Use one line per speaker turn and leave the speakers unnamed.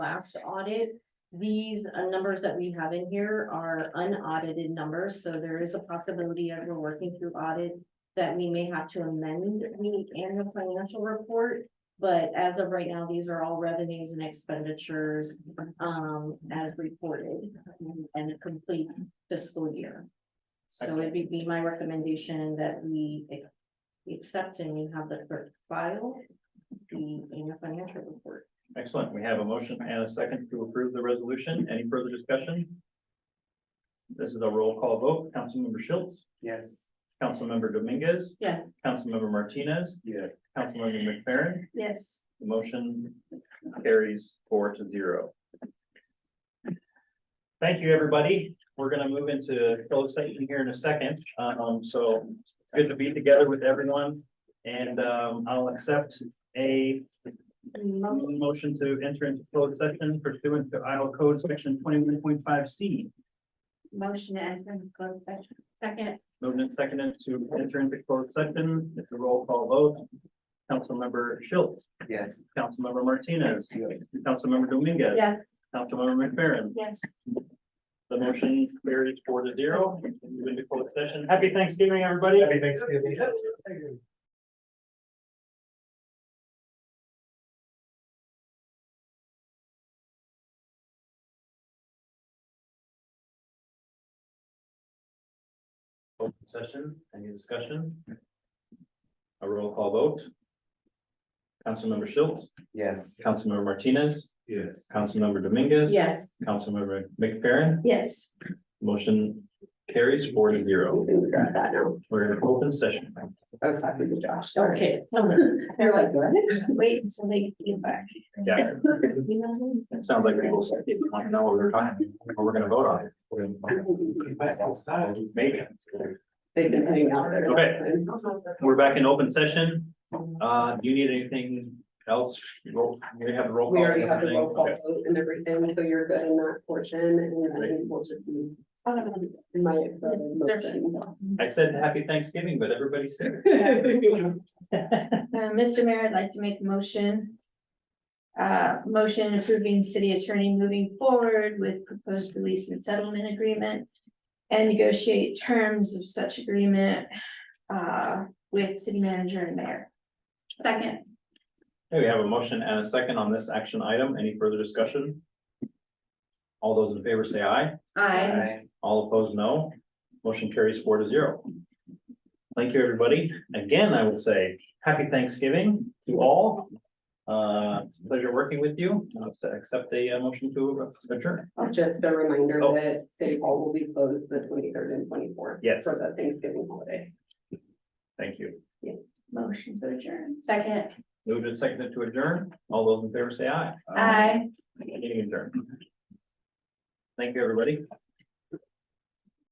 last audit. These uh, numbers that we have in here are unaudited numbers, so there is a possibility as we're working through audit that we may have to amend the annual financial report. But as of right now, these are all revenues and expenditures, um, as reported and a complete fiscal year. So it'd be- be my recommendation that we ac- accept and you have the clerk file the annual financial report.
Excellent. We have a motion and a second to approve the resolution. Any further discussion? This is a roll call vote. Councilmember Schultz,
Yes.
Councilmember Dominguez.
Yeah.
Councilmember Martinez,
Yeah.
Councilmember McFerrin,
Yes.
the motion carries four to zero. Thank you, everybody. We're gonna move into closed session here in a second. Um, so it's good to be together with everyone. And, um, I'll accept a Motion to enter into closed session pursuant to Iowa Code Section twenty-one point five C.
Motion to enter into closed session. Second.
Movement seconded to enter into closed session. It's a roll call vote. Councilmember Schultz,
Yes.
Councilmember Martinez, Councilmember Dominguez. Councilmember McFerrin.
yes.
The motion carries four to zero. Move into closed session. Happy Thanksgiving, everybody.
Happy Thanksgiving.
Open session, any discussion? A roll call vote. Councilmember Schultz,
Yes.
Councilmember Martinez,
Yes.
Councilmember Dominguez.
Yes.
Councilmember McFerrin,
Yes.
motion carries four to zero.
Got that now.
We're in open session.
I was talking to Josh.
Okay.
They're like, what?
Wait until they get back.
Yeah,
You know what I'm saying?
sounds like people said they want to know what we're talking, what we're gonna vote on. We're gonna- Maybe.
They've been hanging out there.
Okay. We're back in open session. Uh, do you need anything else? Roll- We have the roll
We
call.
already have the
and
roll call
everything.
vote and everything, so you're good in that portion, and then we'll just be my the motion.
Okay. I said happy Thanksgiving, but everybody said.
Uh, Mr. Mayor, I'd like to make a motion. Uh, motion approving city attorney moving forward with proposed release and settlement agreement. And negotiate terms of such agreement, uh, with city manager and mayor. Second,
Okay, we have a motion and a second on this action item. Any further discussion? All those in favor say aye.
I.
All opposed, no. Motion carries four to zero. Thank you, everybody. Again, I would say happy Thanksgiving to all. Uh, it's a pleasure working with you. I'll se- accept a uh, motion to adjourn.
Just a reminder
Oh.
that City Hall will be closed the twenty-third and twenty-fourth.
Yes.
For the Thanksgiving holiday.
Thank you.
Yes.
motion to adjourn, second,
Moved and seconded to adjourn. All those in favor say aye.
aye.
Meeting adjourned. Thank you, everybody.